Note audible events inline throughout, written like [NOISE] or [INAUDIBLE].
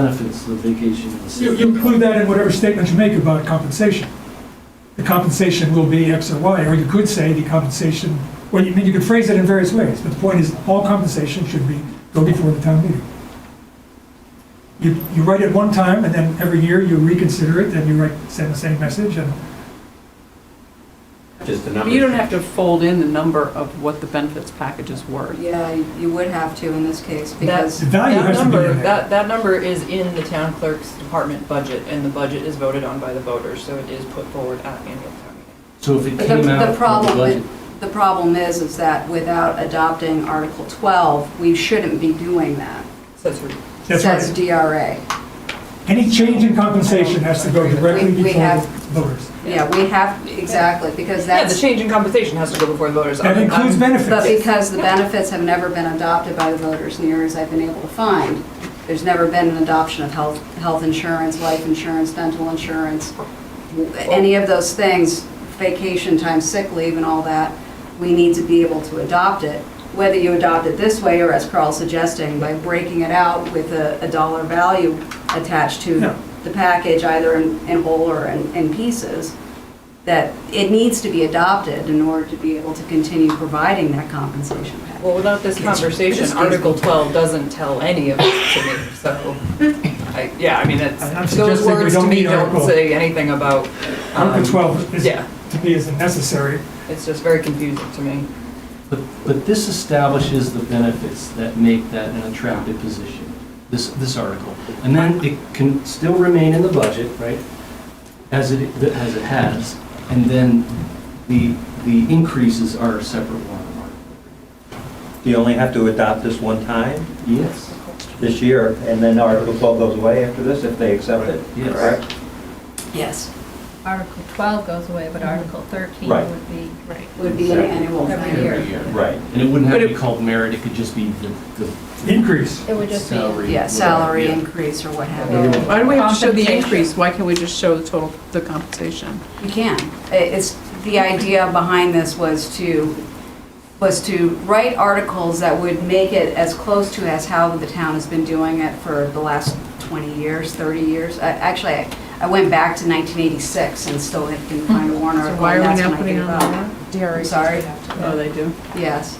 benefits of vacation in the You city. you include that in whatever statement you make about compensation. The compensation will be X or Y, or you could say the compensation, well, you I mean, you could phrase it in various ways, but the point is, all compensation should be, go before the town meeting. You, you write it one time, and then every year you reconsider it, then you write, send the same message, and Just the But numbers. You don't have to fold in the number of what the benefits packages were. Yeah, you would have to in this case, the because, value That has to be number, in there. that, that number is in the town clerk's department budget, and the budget is voted on by the voters, so it is put forward at annual town meeting. So if it but the came out the of the problem, budget, with- the problem is, is that without adopting Article 12, we shouldn't be doing that, So it's re- That's says right. DRA. Any change in compensation has to go directly We- we before have- the voters. Yeah, we have, exactly, because Yeah, the that's, change in compensation has to go before the voters. That I'm- includes I'm- but benefits. because the benefits have never been adopted by the voters, near as I've been able to find, there's never been an adoption of health, health insurance, life insurance, dental insurance, any of those things, vacation time, sick leave and all that, we need to be able to adopt it. Whether you adopt it this way or as Carl's suggesting, by breaking it out with a, a dollar value attached to Yeah. the package, either in, in whole or in, in pieces, that it needs to be adopted in order to be able to continue providing that compensation package. Well, without this conversation, Article 12 doesn't tell any of it to me, so, I, yeah, I mean, I'm not it's, those suggesting we words to don't me need don't Article- say anything about. um, Article 12 is, Yeah, to me, isn't necessary. it's just very confusing to me. but, but this establishes the benefits that make that an attractive position, this, this article. And then it can still remain in the budget, right, as it, as it has, and then the, the increases are a separate one. You only have to adopt this one time Yes, this year, and then Article 12 goes away after this if they accept it, Yes. correct? Yes. Article 12 goes away, but Article 13 Right. would be. Right. Would be an annual Every thing. year. Right. and it wouldn't have to be But it- called merit, it could just be the, the Increase. It would just be. salary. Yeah, whatever, salary yeah. increase or what have you. Yeah. Why do we have to show the Compensation. increase? Why can't we just show the total, the compensation? You can. I- It's, the idea behind this was to, was to write articles that would make it as close to as how the town has been doing it for the last 20 years, 30 years. I- Actually, I- I went back to 1986 and still didn't find a warrant So article. why and are we that's now when I putting gave it on up. the warrant? I'm sorry. Oh, they do. Yes.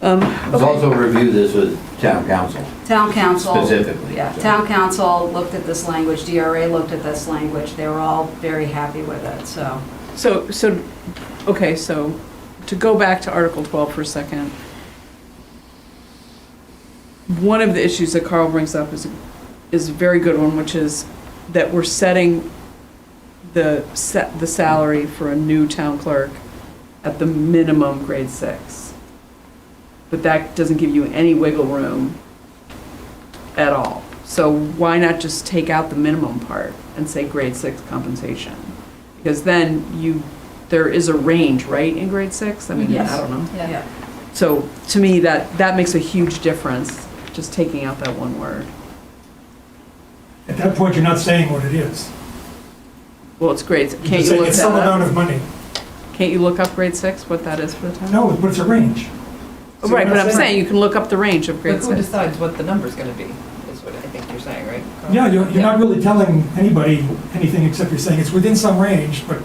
Um, Let's also review this with town council. Town council. Specifically, Yeah, so. town council looked at this language, DRA looked at this language. They were all very happy with it, so. So, so, okay, so to go back to Article 12 for a second. One of the issues that Carl brings up is, is a very good one, which is that we're setting the, set, the salary for a new town clerk at the minimum grade six. But that doesn't give you any wiggle room at all. So why not just take out the minimum part and say grade six compensation? Because then you, there is a range, right, in grade six? I mean, Yes. I don't know. Yeah. So to me, that, that makes a huge difference, just taking out that one word. At that point, you're not saying what it is. Well, it's grades, You're just can't you saying look It's some that amount up? of money. Can't you look up grade six, what that is for the town? No, but it's a range. See Right, what but I'm saying, you can look up the range of But grade who six. decides what the number's gonna be, is what I think you're saying, right? Carl? Yeah, you're, you're not really telling anybody anything except you're saying it's within some range, but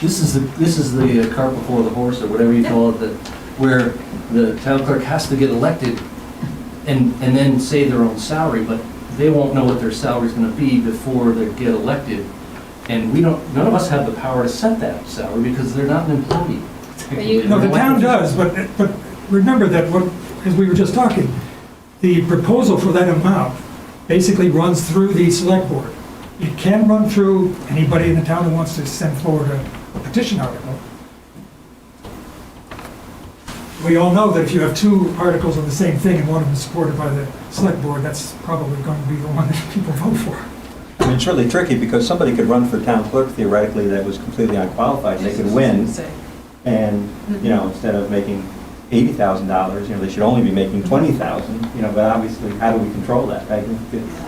This is the, this is the uh, cart before the horse, or whatever you call it, that, where the town clerk has to get elected and, and then say their own salary, but they won't know what their salary's gonna be before they get elected. And we don't, none of us have the power to set that salary, because they're not an employee. you- No, the town does, but, but remember that what, as we were just talking, the proposal for that amount basically runs through the select board. It can run through anybody in the town who wants to send forward a petition article. We all know that if you have two articles on the same thing and one of them is supported by the select board, that's probably going to be the one that people vote for. I mean, it's really tricky because somebody could run for town clerk theoretically that was completely unqualified, and they could win, and, you know, instead of making eighty thousand dollars, you know, they should only be making twenty thousand, you know, but obviously, how do we control that? I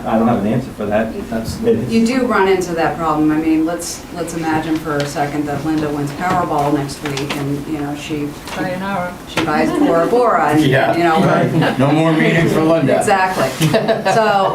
I don't have an answer for that. That's, It- You do run into that problem. I mean, let's, let's imagine for a second that Linda wins Powerball next week and, you know, she, by an hour. [LAUGHS] she buys Bora Bora and, you know. [LAUGHS] Yeah, no more meetings for Linda. Exactly. So